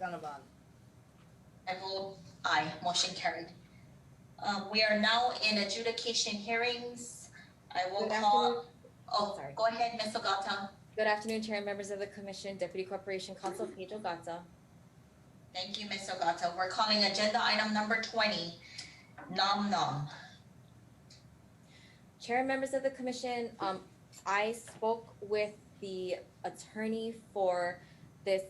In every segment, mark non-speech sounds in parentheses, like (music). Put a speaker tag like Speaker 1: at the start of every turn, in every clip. Speaker 1: Gannabon.
Speaker 2: I vote aye, motion carried. Um, we are now in adjudication hearings. I will
Speaker 3: Good
Speaker 2: call, oh,
Speaker 3: Sorry.
Speaker 2: go ahead, Ms. Ogata.
Speaker 3: Good afternoon, Chair and members of the Commission, Deputy Corporation Counsel Paige Ogata.
Speaker 2: Thank you, Ms. Ogata. We're calling agenda item number twenty, nom nom.
Speaker 3: Chair and members of the Commission, um, I spoke with the attorney for this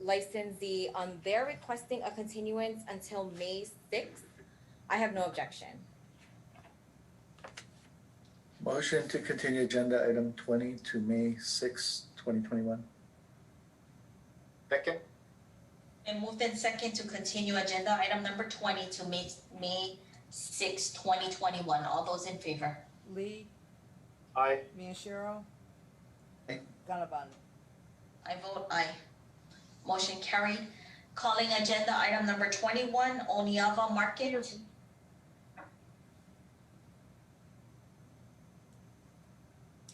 Speaker 3: licensee. Um, they're requesting a continuance until May sixth. I have no objection.
Speaker 4: Motion to continue agenda item twenty to May sixth, twenty twenty-one.
Speaker 5: Second,
Speaker 2: And moved in second to continue agenda item number twenty to May, May sixth, twenty twenty-one. All those in favor?
Speaker 1: Lee,
Speaker 5: aye.
Speaker 1: Miyashiro.
Speaker 4: Aye.
Speaker 1: Gannabon.
Speaker 2: I vote aye. Motion carried. Calling agenda item number twenty-one, Oniava Market.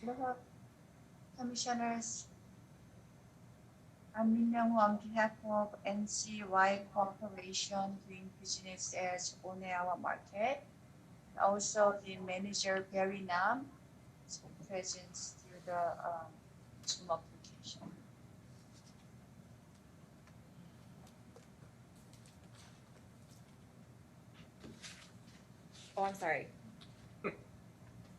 Speaker 6: Hello, Commissioners. I'm Minyoung Woo on behalf of NCY Corporation doing business as Oneawa Market. Also the manager Barry Nam is present through the um, Zoom application.
Speaker 3: Oh, I'm sorry.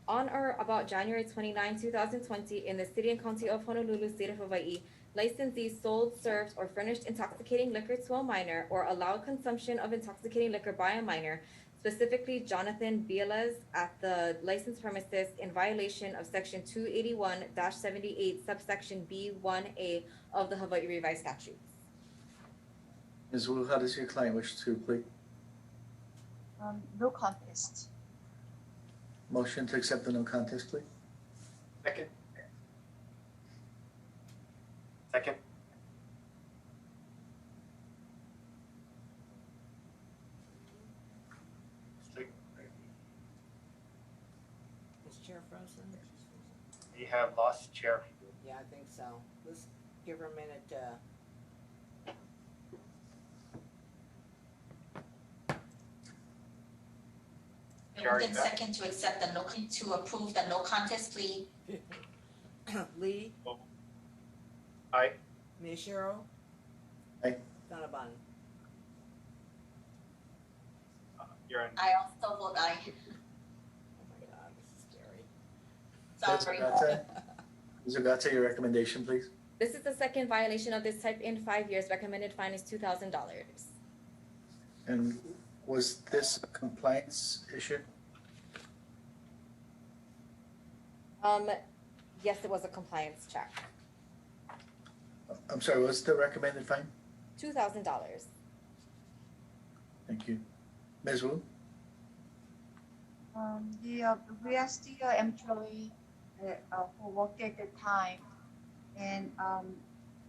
Speaker 3: On or about January 29, thousand twenty, in the city and county of Honolulu, state of Hawaii, licensee sold, served, or furnished intoxicating liquor to a minor or allowed consumption of intoxicating liquor by a minor, specifically Jonathan Bielas at the licensed premises in violation of section two eighty-one seventy-eight subsection B one A of the Hawaii revised statutes.
Speaker 4: Ms. Wu, how does your client wish to plead?
Speaker 6: Um, no contest.
Speaker 4: Motion to accept the no contest plea?
Speaker 5: Second. Second,
Speaker 1: Is Chair frozen?
Speaker 5: we have lost chair.
Speaker 1: Yeah, I think so. Let's give her a minute to.
Speaker 2: Moved in second to accept the no, con- to approve the no contest plea.
Speaker 1: (coughs) Lee.
Speaker 5: Aye.
Speaker 1: Miyashiro.
Speaker 4: Aye.
Speaker 1: Gannabon.
Speaker 5: Uh, You're on.
Speaker 2: I also vote aye.
Speaker 1: Oh my god, this is scary.
Speaker 2: Sorry.
Speaker 4: Ms. Ogata? Ms. Ogata, your recommendation, please?
Speaker 3: This is the second violation of this type in five years. Recommended fine is two thousand dollars.
Speaker 4: And was this a compliance issue?
Speaker 3: Um, yes, it was a compliance check,
Speaker 4: I'm sorry, what's the recommended fine?
Speaker 3: two thousand dollars.
Speaker 4: Thank you. Ms. Wu?
Speaker 6: Um, the, uh, we are still employee, uh, uh, who worked at the time. And, um,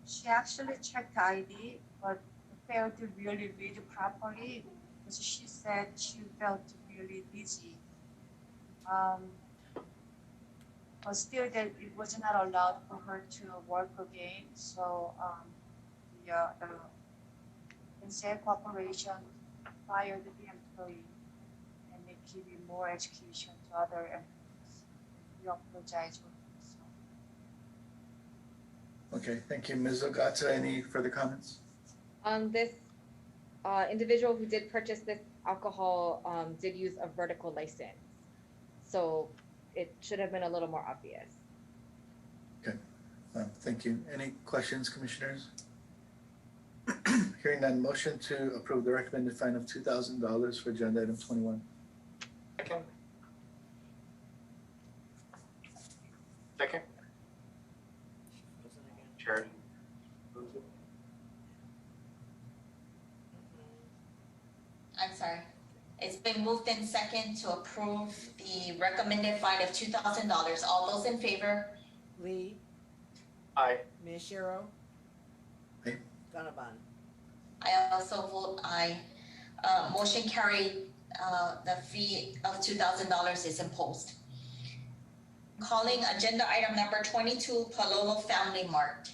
Speaker 6: she actually checked the ID, but failed to really read it properly, because she said she felt really busy. Um, but still that it was not allowed for her to work again, so, um, the, uh, the NSA Corporation fired the employee and they give you more education to other employees. We apologize for this.
Speaker 4: Okay, thank you. Ms. Ogata, any further comments?
Speaker 3: Um, this uh, individual who did purchase this alcohol um, did use a vertical license, so it should have been a little more obvious.
Speaker 4: Um, thank you. Any questions, commissioners? (clears throat) Hearing none, motion to approve the recommended fine of two thousand dollars for agenda item twenty-one.
Speaker 5: Second. Second,
Speaker 1: She frozen again.
Speaker 5: chair.
Speaker 2: I'm sorry. It's been moved in second to approve the recommended fine of two thousand dollars. All those in favor?
Speaker 1: (laughs) Lee.
Speaker 5: Aye.
Speaker 1: Miyashiro.
Speaker 4: Aye.
Speaker 1: Gannabon.
Speaker 2: I also vote aye. Uh, motion carried, uh, the fee of two thousand dollars is imposed. Calling agenda item number twenty-two, Palolo Family Mart.